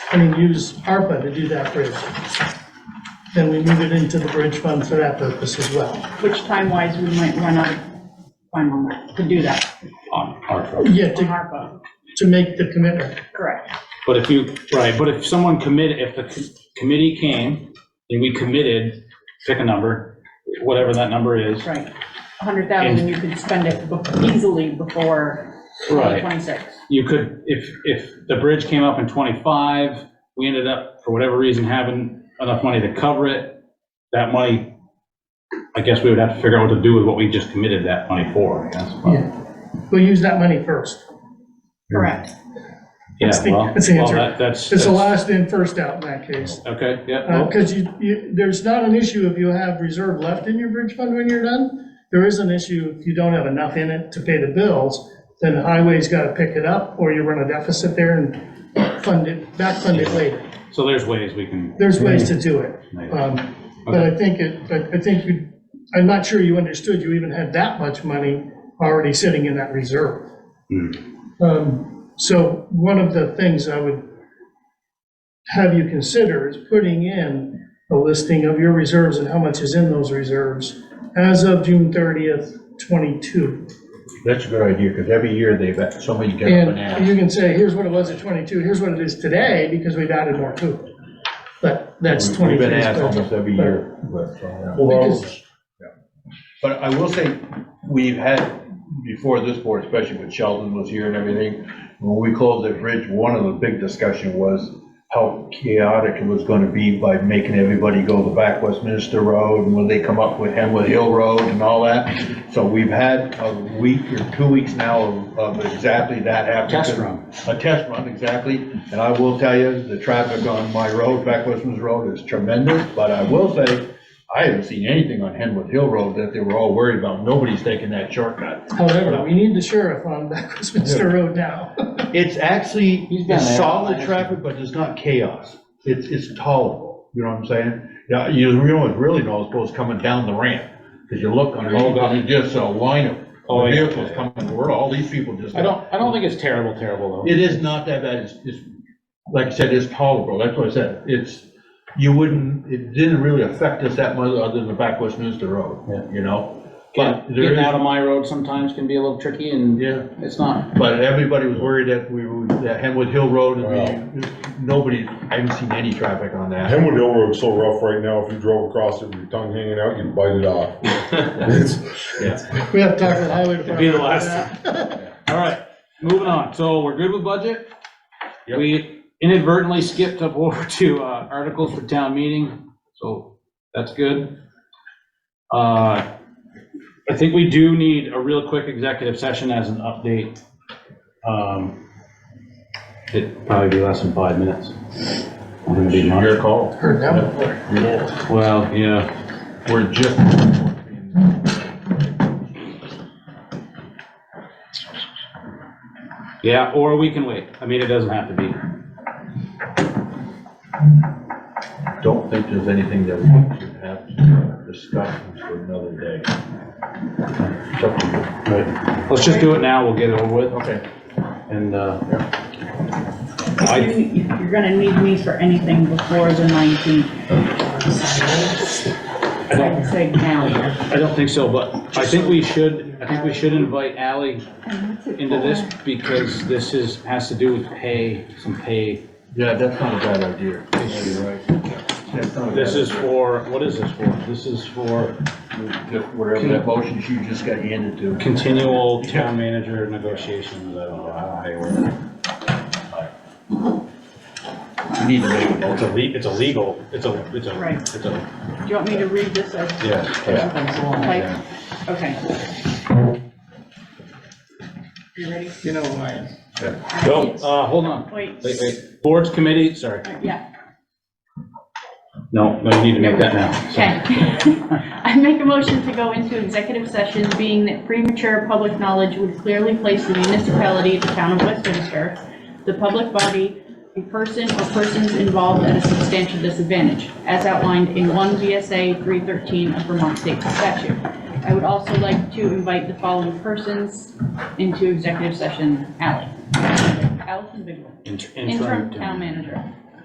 I mean, use ARPA to do that bridge. Then we move it into the bridge fund for that purpose as well. which time-wise we might run out of time on that, to do that, on ARPA. Yeah, on to, ARPA. to make the commitment. Correct. But if you, right, but if someone committed, if the co- committee came and we committed, pick a number, whatever that number is. Right. 100,000, you could spend it bef- easily before Right. 26. You could, if, if the bridge came up in 25, we ended up, for whatever reason, having enough money to cover it, that money, I guess we would have to figure out what to do with what we just committed that money for, I guess. but- Yeah. We'll use that money first. Correct. Yeah, the- well, that's the well, answer. that- that's. It's the that's- last in, first out in that case. Okay, yeah, well, Because you, you, there's not an issue if you have reserve left in your bridge fund when you're done. There is an issue if you don't have enough in it to pay the bills, then the highway's got to pick it up, or you run a deficit there and fund it, back fund it later. so there's ways we can, There's ways to do it. Um, But I think it, but I think you, I'm not sure you understood you even had that much money already sitting in that reserve. Hmm. Um, So one of the things I would have you consider is putting in a listing of your reserves and how much is in those reserves as of June 30th, 22. That's a good idea, because every year they've, had- somebody get up and And ask. you can say, here's what it was at 22, here's what it is today, because we've added more to it. But that's We've 23's budget. been asked almost every but- year. but, uh, Because- But I will say, we've had, before this board, especially when Sheldon was here and everything, when we closed that bridge, one of the big discussion was how chaotic it was gonna be by making everybody go the back Westminster Road, and when they come up with Hemwood Hill Road and all that. So we've had a week or two weeks now of- of exactly that happening. Test run. A test run, exactly. And I will tell you, the traffic on my road, back Westminster Road, is tremendous, but I will say, I haven't seen anything on Henwood Hill Road that they were all worried about. Nobody's taking that shortcut. However, Oh, we need the sheriff on Back Westminster Road now. It's actually, He's been it's there. solid traffic, but it's not chaos. It's, it's tolerable, you know what I'm saying? Yeah, you you know, it's really noticeable is coming down the ramp, because you look underneath, God. and you just a line of Oh, yeah. vehicles coming, where all these people just. I don't, I don't think it's terrible, terrible though. It is not that bad, it's, it's, like I said, it's tolerable, that's what I said, it's, you wouldn't, it didn't really affect us that much other than the back Westminster Yeah. Road, you know? But there Getting out is, of my road sometimes can be a little tricky and yeah, it's not. but everybody was worried that we, were- that Henwood Hill Road, and we, nobody, I haven't seen any traffic on that. Hemwood Hill Road's so rough right now, if you drove across it with your tongue hanging out, you'd bite it off. It's- We have to talk to the highway department. be the about last. that. All right, moving on. So we're good with budget? Yep. We inadvertently skipped up over to uh, articles for town meeting, so that's good. Uh, I think we do need a real quick executive session as an update. Um, It'd probably be less than five minutes. We're gonna be Your monitored. call. Heard that one before. Well, yeah, We're just. yeah, or we can wait. I mean, it doesn't have to be. Don't think there's anything that we should have to discuss for another day. It's up to you. Let's just do it now, we'll get it over with, Okay. and, uh, If you- if You're gonna need me for anything before the 19th. I'd say now. I don't think so, but I think we should, I think we should invite Ally into this because this is, has to do with pay, some pay. Yeah, that's not a bad idea. That's not a This bad is idea. for, what is this for? This is for Just Whatever that motion you just got handed to. continual town manager negotiations, I don't know how you word it. You need to make a It's a motion. le, it's a legal, it's a, it's a, Right. it's a, Do you want me to read this as? yes. Like, Okay. You ready? You know why? No, uh, hold on. Wait. Wait, wait. Boards committee, sorry. Yeah, No, no, you need to make that now. Sorry. okay. I make a motion to go into executive session, being that premature public knowledge would clearly place the municipality, the town of Westminster, the public body, a person or persons involved at a substantial disadvantage, as outlined in 1 VSA 313 of Vermont State Statute. I would also like to invite the following persons into executive session. Ally. Allison Bigler, Inter- interim town manager.